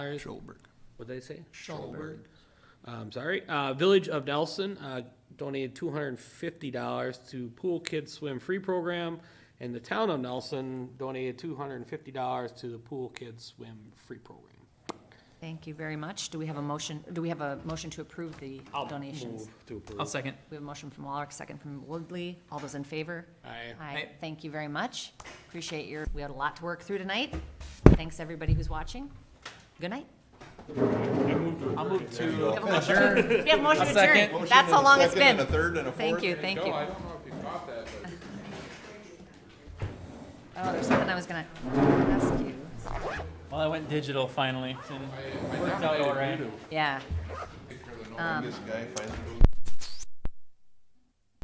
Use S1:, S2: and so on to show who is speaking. S1: Schoberg.
S2: What'd they say?
S1: Schoberg.
S2: I'm sorry. Uh, Village of Nelson uh, donated two hundred and fifty dollars to Pool Kids Swim Free Program, and the town of Nelson donated two hundred and fifty dollars to the Pool Kids Swim Free Program.
S3: Thank you very much. Do we have a motion, do we have a motion to approve the
S2: I'll
S3: donations?
S2: move To
S4: I'll
S2: approve.
S4: second.
S3: We have a motion from Walrick, second from Woodley. All those in favor?
S2: Aye.
S3: Aye.
S4: Aye.
S3: Thank you very much. Appreciate your, we had a lot to work through tonight. Thanks, everybody who's watching. Good night.
S4: I'll move to.
S3: We have a motion
S4: A
S3: to
S4: second.
S3: adjourn. That's how long it's
S5: Second and
S3: been.
S5: a third and a fourth.
S3: Thank you, thank you.
S5: No, I don't know if you caught that, but.
S3: Oh, there's something I was gonna ask you.
S4: Well, I went digital finally. and Worked out all right.
S3: Yeah.
S5: This guy finally